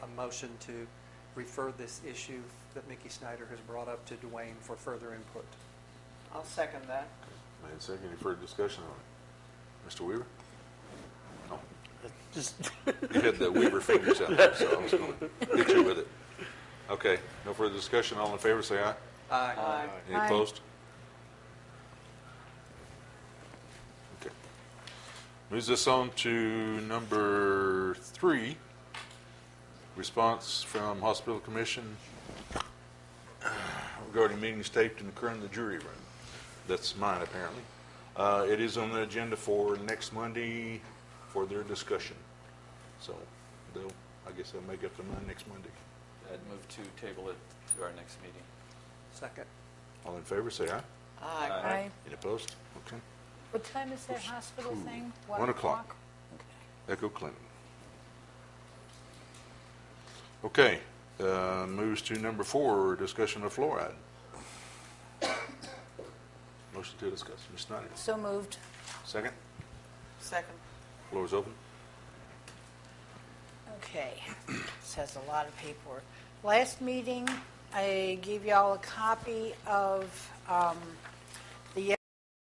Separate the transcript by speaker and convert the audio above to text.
Speaker 1: motion to refer this issue that Mickey Snyder has brought up to Dwayne for further input.
Speaker 2: I'll second that.
Speaker 3: Made and seconded. Any further discussion on it? Mr. Weaver? No?
Speaker 4: Just,
Speaker 3: You had the Weaver fingers out, so I was going to get you with it. Okay, no further discussion. All in favor, say aye.
Speaker 1: Aye.
Speaker 2: Aye.
Speaker 3: Any
Speaker 5: Aye.
Speaker 3: opposed? Okay. Moves us on to number three, response from Hospital Commission uh, regarding meetings taped and occurring in the jury room. That's mine, apparently. Uh, It is on the agenda for next Monday for their discussion. So they'll, I guess they'll make up their mind next Monday.
Speaker 6: I'd move to table it to our next meeting.
Speaker 1: Second.
Speaker 3: All in favor, say aye.
Speaker 2: Aye.
Speaker 6: Aye.
Speaker 3: Any opposed? Okay.
Speaker 5: What time is that hospital thing?
Speaker 3: One o'clock. Echo Clinton. Okay, uh, moves to number four, discussion of fluoride. Motion to discuss, Ms. Snyder.
Speaker 5: So moved.
Speaker 3: Second,
Speaker 2: Second.
Speaker 3: floor is open.
Speaker 5: Okay, this has a lot of paperwork. Last meeting, I gave y'all a copy of um,